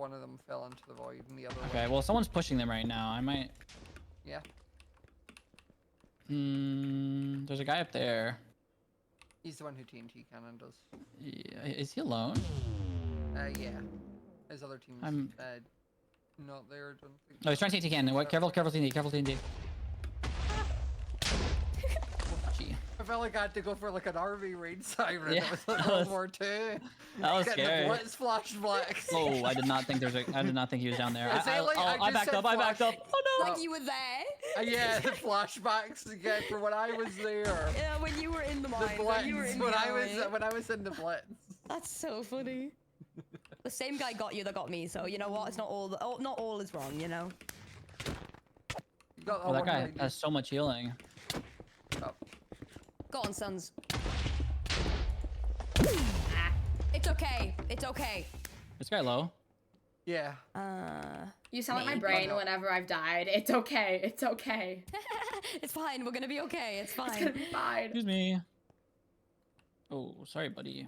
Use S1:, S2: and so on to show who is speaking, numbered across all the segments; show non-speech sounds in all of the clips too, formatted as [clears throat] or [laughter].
S1: One of them fell into the void and the other
S2: Okay,
S1: one.
S2: well, someone's pushing them right now. I might.
S1: Yeah.
S2: Mm, there's a guy up there.
S1: He's the one who TNT cannon does.
S2: Yeah, Is he alone?
S1: Uh, yeah. His other team's
S2: I'm-
S1: uh, not there, I don't think.
S2: No, he's trying to take TNT. What? Careful, careful TNT,
S1: [laughs]
S2: careful TNT. Gee,
S1: I felt like I had to go for like an RV raid siren.
S2: Yeah,
S1: That
S2: [laughs]
S1: was like
S2: that
S1: World
S2: was-
S1: War Two.
S2: that was
S1: Getting
S2: scary.
S1: The blitz flash black.
S2: [laughs] Oh, I did not think there's a. I did not think he was down there.
S1: [laughs]
S2: I,
S1: Is that
S2: I,
S1: like-
S2: oh,
S1: I
S2: I
S1: just
S2: backed
S1: said
S2: up. I backed
S1: flash.
S2: up. Oh no!
S1: Oh.
S3: Like you were there.
S1: [laughs] Uh, yeah, the flashbacks again for when I was there.
S3: Yeah, when you were in
S1: The
S3: the mine. when you were
S1: blitz.
S3: in
S1: When
S3: the
S1: I was uh,
S3: alley.
S1: when I was in the blitz.
S3: That's so funny. the same guy got you that got me, so you know what? It's not all, all not all is wrong, you know.
S1: You got
S2: Oh, that
S1: one
S2: guy
S1: lady.
S2: has so much healing.
S1: Oh,
S3: Go on, sons. Ah, It's okay. It's okay.
S2: This guy low.
S1: Yeah.
S3: Uh, [laughs]
S4: You sound like my
S3: Maybe.
S4: brain
S1: no.
S4: whenever I've died. It's okay. It's okay.
S3: it's fine. We're gonna be okay. It's
S4: It's gonna
S3: fine.
S4: be fine.
S2: Excuse me. Oh, sorry, buddy.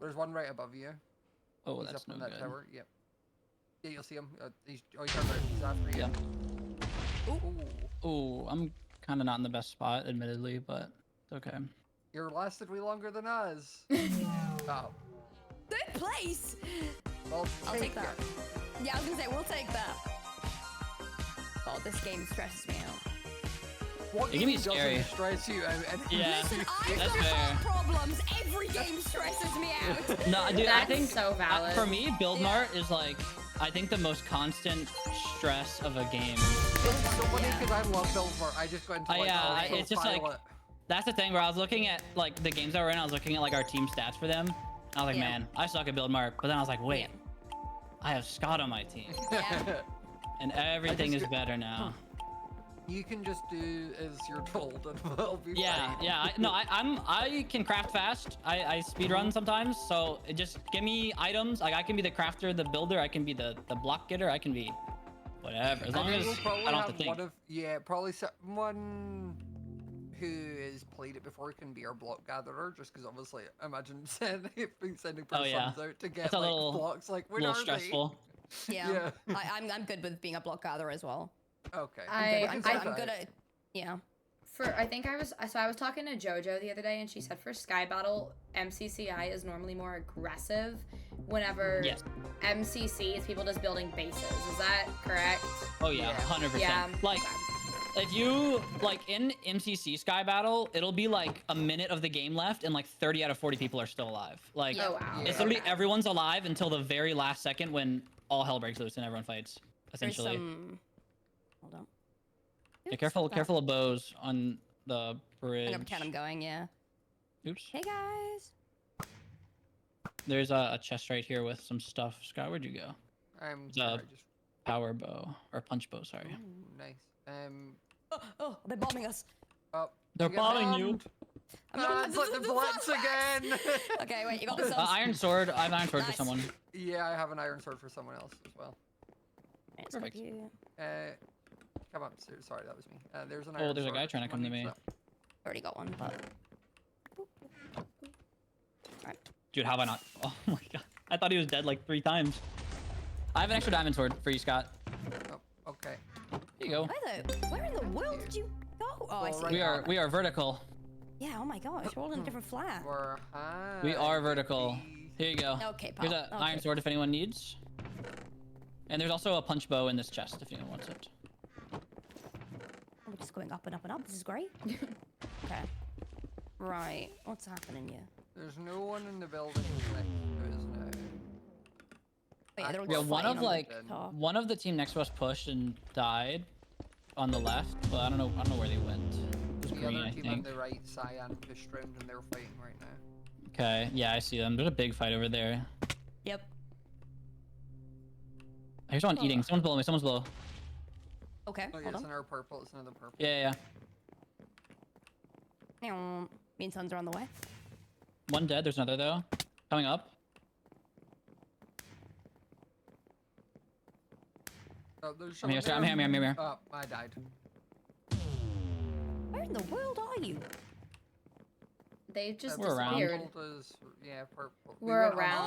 S1: There's one right above you.
S2: Oh,
S1: he's up
S2: that's no
S1: in that
S2: good.
S1: tower. Yep. Yeah, you'll see him. Uh, he's, oh, he's, over, he's after you.
S2: Yeah.
S1: Ooh.
S2: Oh, I'm kind of not in the best spot, admittedly, but it's okay.
S1: You're lasted way longer than
S3: [laughs]
S1: us. oh.
S3: Third place.
S1: Well,
S3: I'll take
S1: it.
S3: that. Yeah, I was gonna say we'll take that. Oh, this game stresses me out.
S1: What
S2: It can be
S1: game doesn't
S2: scary.
S1: stress you out? And
S2: Yeah.
S3: Listen, I've
S2: That's
S3: got
S2: fair.
S3: heart problems. Every game stresses me out.
S2: No, dude, I
S4: That's
S2: think
S4: so
S2: uh,
S4: valid.
S2: for me, build
S3: Yeah.
S2: mart is like I think the most constant stress of a game.
S1: It's so funny
S3: Yeah.
S1: because I love Billboard. I just go into
S2: I,
S1: like,
S2: uh,
S1: I'll
S2: I- it's just
S1: profile
S2: like-
S1: it.
S2: That's the thing where I was looking at like the games that we're in. I was looking at like our team stats for them. and I was like,
S3: Yeah.
S2: man, I suck at build mart. But then I was like, wait, I have Scott on my team,
S3: Yeah.
S2: and everything
S1: just
S2: is
S1: go-
S2: better now.
S1: [laughs] you can just do as you're told and [laughs] it'll be
S2: Yeah,
S1: fine.
S2: yeah. I, no, I, I'm I can craft fast. I, I speed
S1: Uh-huh.
S2: run sometimes, so it just give me items. Like I can be the crafter, the builder. I can be the the block getter. I can be whatever. As
S1: I
S2: long
S1: think
S2: as
S1: we'll
S2: I
S1: probably
S2: don't have to
S1: have
S2: think.
S1: one of yeah, probably someone who has played it before can be our block gatherer, just because obviously imagine [laughs] sending sending
S2: Oh,
S1: persons
S2: yeah.
S1: out to get
S2: It's a
S1: like
S2: little-
S1: blocks like
S2: a
S1: when
S2: little
S1: are they?"
S2: stressful.
S3: Yeah.
S1: Yeah.
S3: I, I'm, I'm good with being a block gatherer as well.
S1: Okay.
S3: I'm
S4: I-
S1: I
S3: good, I'm
S1: can see
S3: good, I'm good
S1: that.
S3: at. Yeah.
S4: For I think I was so I was talking to JoJo the other day and she said for Sky Battle MCCI is normally more aggressive. Whenever
S2: Yes.
S4: MCC is people just building bases. Is that correct?
S2: Oh yeah,
S1: Yeah.
S2: hundred
S4: Yeah.
S2: percent. Like
S4: okay.
S2: if you like in MCC Sky Battle, it'll be like a minute of the game left, and like thirty out of forty people are still alive. Like
S4: oh wow.
S2: it's
S1: Yeah.
S2: literally
S4: okay.
S2: everyone's alive until the very last second when all hell breaks loose and everyone fights.
S3: There's
S2: Essentially.
S3: some. Hold on.
S2: Yeah,
S3: Oops,
S2: careful,
S3: not that.
S2: careful of bows on the
S3: I'm
S2: bridge.
S3: gonna pretend I'm going. Yeah.
S2: Oops.
S3: Hey guys.
S2: There's a, a chest right here with some stuff. Scott, where'd you go?
S1: I'm
S2: It's
S1: Um, sorry,
S2: a-
S1: I just [clears throat]
S2: Power bow or punch bow? Sorry.
S1: Ooh, nice. Um
S3: Oh, oh, they're bombing us.
S1: oh Uh,
S2: They're
S1: you got
S2: bombing you.
S1: bombed.
S3: [laughs] Um, I'm gonna-
S1: Guys,
S3: [laughs]
S1: let Ah, the blitz again.
S3: okay, wait. You got the
S2: Uh,
S3: sons.
S2: iron sword. I have iron sword
S3: Oh, Nice.
S2: for someone.
S1: [laughs] yeah, I have an iron sword for someone else as well.
S3: It's gonna
S2: perfect.
S3: be-
S1: Uh come up sir- sorry, that was me. Uh, there's an
S2: Oh,
S1: iron
S2: there's a
S1: sword
S2: guy
S1: for
S2: trying to come to
S1: someone,
S2: me.
S1: so-
S3: Already got one, but. Alright.
S2: Dude, how have I not? [laughs] Oh my god. I thought he was dead like three times. I have an extra diamond sword for you, Scott.
S1: Oh, okay.
S2: Here you go.
S3: Where the? Where in the world did you go? Oh, I
S1: Well,
S3: see.
S1: right
S2: We
S3: you.
S2: are we are vertical.
S3: Yeah. Oh my gosh. We're all in a different flat.
S1: We're
S2: We
S1: high,
S2: are vertical.
S1: baby.
S2: Here you go.
S3: Uh, Okay, pal.
S2: Here's an iron
S3: Okay.
S2: sword if anyone needs. And there's also a punch bow in this chest if anyone wants it.
S3: We're just going up and up and up. This
S1: [laughs]
S3: is great. okay. Right. What's happening here?
S1: There's no one in the building next to us now.
S3: Wait,
S1: Uh,
S3: they're all
S2: Yeah,
S3: just
S2: one
S3: fighting
S2: of
S3: on the
S2: like
S3: top.
S2: one of the team next to us pushed and died on the left, but I don't know I don't know where they went. It was
S1: The
S2: green,
S1: other
S2: I
S1: team on
S2: think.
S1: the right, Cyan, pushed round and they're fighting right now. Oh,
S2: Okay, yeah, I see them. There's a big fight over there.
S3: Yep.
S2: I hear someone eating. Someone's below me. Someone's below.
S3: Okay.
S1: Oh, yeah,
S3: hold
S1: it's
S3: on.
S1: another purple, it's another purple.
S2: Yeah, yeah, yeah.
S3: Meow. Me and sons are on the way.
S2: One dead. There's another though. Coming up.
S1: Oh, there's
S2: I'm here.
S1: someone
S2: Scott. I'm here. I'm here. I'm here.
S1: there.
S2: I'm
S1: Oh, I died.
S3: Where in the world are you?
S4: They just
S2: We're around.
S4: disappeared.
S1: Purple does, yeah, purple. We
S4: We're
S1: went on
S4: around.
S1: all